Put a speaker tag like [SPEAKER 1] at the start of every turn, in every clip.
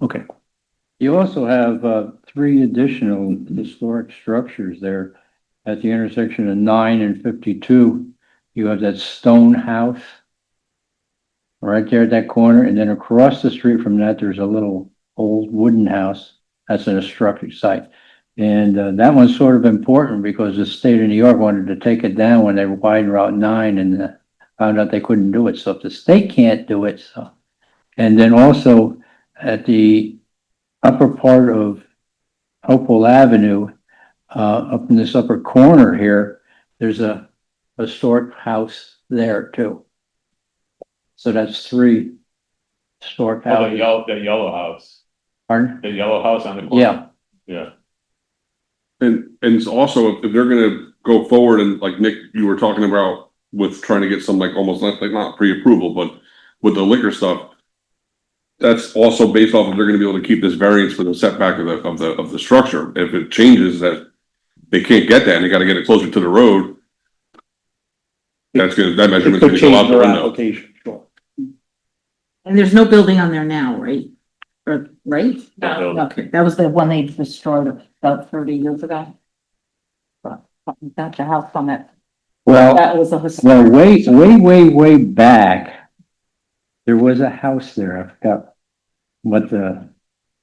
[SPEAKER 1] Okay,
[SPEAKER 2] You also have uh, three additional historic structures there at the intersection of nine and fifty-two. You have that stone house right there at that corner, and then across the street from that, there's a little old wooden house. That's an historic site. And uh, that one's sort of important because the state of New York wanted to take it down when they widened Route nine and uh, found out they couldn't do it. So if the state can't do it, so. And then also at the upper part of Hopewell Avenue, uh, up in this upper corner here, there's a historic house there too. So that's three historic
[SPEAKER 3] Oh, the
[SPEAKER 2] houses.
[SPEAKER 3] yellow, the yellow house,
[SPEAKER 2] Pardon?
[SPEAKER 3] the yellow house on the corner.
[SPEAKER 2] Yeah,
[SPEAKER 3] Yeah,
[SPEAKER 4] And, and it's also, if if they're gonna go forward and like Nick, you were talking about with trying to get some like almost not, like not pre-approval, but with the liquor stuff. That's also based off of they're gonna be able to keep this variance for the setback of the, of the, of the structure. If it changes that they can't get that and they gotta get it closer to the road. That's gonna, that
[SPEAKER 1] it
[SPEAKER 4] measurement's
[SPEAKER 1] could
[SPEAKER 4] gonna go
[SPEAKER 1] change
[SPEAKER 4] out the
[SPEAKER 1] their
[SPEAKER 4] window.
[SPEAKER 1] application, sure.
[SPEAKER 5] And there's no building on there now, right? Or, right?
[SPEAKER 3] No. No.
[SPEAKER 5] Okay, that was the one they destroyed about thirty years ago. But, Got the house on it.
[SPEAKER 2] well.
[SPEAKER 5] That was a historic.
[SPEAKER 2] Well, way, way, way, way back, there was a house there. I forgot what the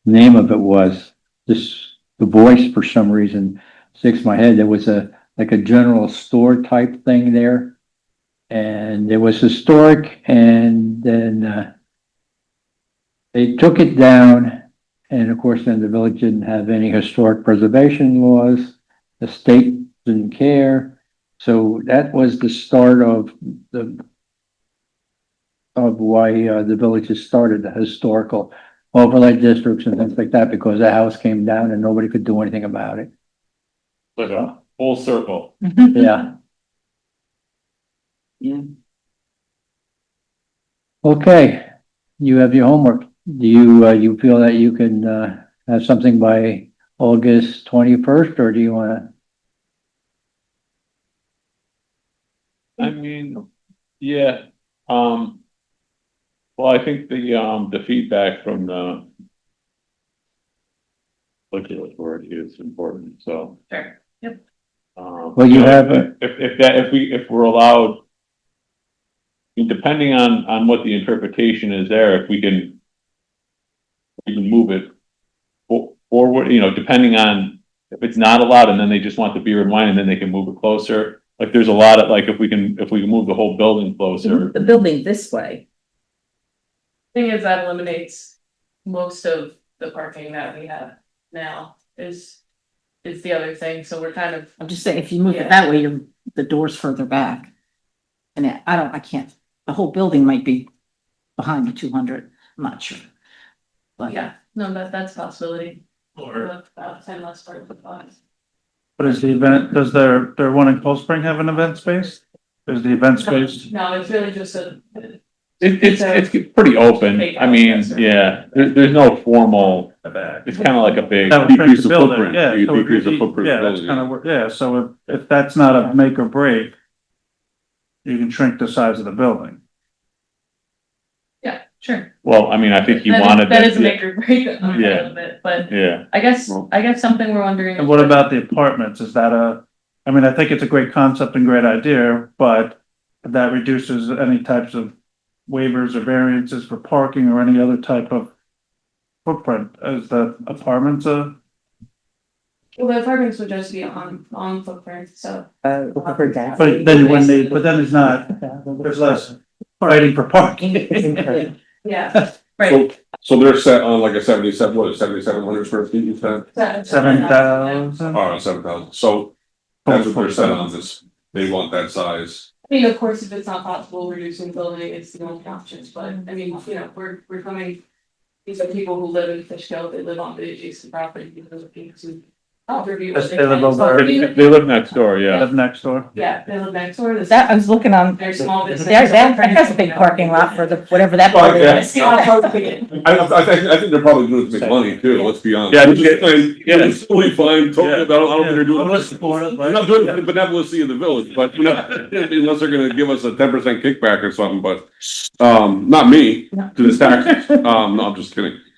[SPEAKER 2] name of it was. This, the voice for some reason sticks in my head. There was a, like a general store type thing there. And it was historic and then, uh, they took it down and of course then the village didn't have any historic preservation laws. The state didn't care. So that was the start of the of why uh, the villages started the historical overlay districts and things like that, because the house came down and nobody could do anything about it.
[SPEAKER 3] like a full circle.
[SPEAKER 2] Yeah.
[SPEAKER 5] Yeah.
[SPEAKER 2] Okay, you have your homework. Do you, uh, you feel that you can, uh, have something by August twenty-first, or do you wanna?
[SPEAKER 3] I mean, yeah, um. Well, I think the, um, the feedback from the. Look at what word is important, so.
[SPEAKER 5] Sure, yep.
[SPEAKER 3] Um,
[SPEAKER 2] Well, you
[SPEAKER 3] know,
[SPEAKER 2] have a-
[SPEAKER 3] If, if that, if we, if we're allowed. Depending on, on what the interpretation is there, if we can. We can move it. fo- Forward, you know, depending on if it's not allowed and then they just want the beer and wine and then they can move it closer. Like there's a lot of, like if we can, if we can move the whole building closer.
[SPEAKER 6] Mm-hmm.
[SPEAKER 5] The building this way.
[SPEAKER 6] Thing is, that eliminates most of the parking that we have now is, is the other thing, so we're kind of,
[SPEAKER 5] I'm just saying, if you move
[SPEAKER 6] Yeah.
[SPEAKER 5] it that way, your, the door's further back. And I- I don't, I can't, the whole building might be behind the two hundred, I'm not sure. But
[SPEAKER 6] yeah, no, that, that's a possibility.
[SPEAKER 7] Or
[SPEAKER 6] About ten less part of the box.
[SPEAKER 7] what is the event, does their, their one in Cold Spring have an event space? There's the event space,
[SPEAKER 6] No, it's really just a,
[SPEAKER 3] It, it's,
[SPEAKER 6] So-
[SPEAKER 3] it's pretty open, I mean,
[SPEAKER 6] Yes, sir.
[SPEAKER 3] yeah, there, there's no formal,
[SPEAKER 7] in the back.
[SPEAKER 3] it's kinda like a big,
[SPEAKER 7] That would shrink
[SPEAKER 4] Decrease the
[SPEAKER 7] the building,
[SPEAKER 4] footprint.
[SPEAKER 7] yeah.
[SPEAKER 4] You
[SPEAKER 7] so it would
[SPEAKER 4] decrease the
[SPEAKER 7] be-
[SPEAKER 4] footprint
[SPEAKER 7] Yeah,
[SPEAKER 4] of
[SPEAKER 7] that's
[SPEAKER 4] the
[SPEAKER 7] kind
[SPEAKER 4] building,
[SPEAKER 7] of, where- yeah, so if, if that's not a make or break, you can shrink the size of the building.
[SPEAKER 6] yeah, sure.
[SPEAKER 3] well, I mean, I think he
[SPEAKER 6] That is-
[SPEAKER 3] wanted.
[SPEAKER 6] That
[SPEAKER 3] it,
[SPEAKER 6] is a make or break a little bit, but
[SPEAKER 3] Yeah,
[SPEAKER 6] I guess,
[SPEAKER 4] Well-
[SPEAKER 6] I guess something we're wondering.
[SPEAKER 7] And what about the apartments? Is that a, I mean, I think it's a great concept and great idea, but that reduces any types of waivers or variances for parking or any other type of footprint. Is the apartments a,
[SPEAKER 6] Well, the apartments would just be on, on footprint, so.
[SPEAKER 8] for that.
[SPEAKER 7] but then when they, but then it's not, there's less fighting for parking.
[SPEAKER 6] Yeah, right.
[SPEAKER 4] So they're set on like a seventy-seven, what, seventy-seven hundred square feet, you said?
[SPEAKER 7] Seven
[SPEAKER 1] Uh-huh.
[SPEAKER 7] thousand?
[SPEAKER 4] All right, seven thousand. So that's what they're set on this. They want that size.
[SPEAKER 6] I mean, of course, if it's not possible, reducing building is the only options, but I mean, you know, we're, we're coming. These are people who live in Fishkill, they live on the adjacent property, you know, those are people who. Overview
[SPEAKER 7] Yes,
[SPEAKER 6] what they
[SPEAKER 7] they live
[SPEAKER 6] can, so
[SPEAKER 7] over-
[SPEAKER 6] even-
[SPEAKER 3] they live next door, yeah,
[SPEAKER 7] Live next door.
[SPEAKER 6] Yeah, they live next door, this.
[SPEAKER 8] That, I was looking on,
[SPEAKER 6] Their small
[SPEAKER 8] there,
[SPEAKER 6] business.
[SPEAKER 8] that, that has a big parking lot for the, whatever that
[SPEAKER 4] Well,
[SPEAKER 8] building
[SPEAKER 4] yeah.
[SPEAKER 8] is.
[SPEAKER 6] See how far we can
[SPEAKER 4] I, I, I think, I think they're probably doing it to make money too, let's be honest.
[SPEAKER 3] Yeah,
[SPEAKER 4] Which is
[SPEAKER 3] yeah.
[SPEAKER 4] fine,
[SPEAKER 3] Yeah.
[SPEAKER 4] It's totally fine, totally, I don't, I don't think they're doing.
[SPEAKER 7] Unless Florida,
[SPEAKER 4] They're not doing it for benevolency in the village, but you know, unless they're gonna give us a ten percent kickback or something, but, um, not me, to the taxes, um, no, I'm just kidding.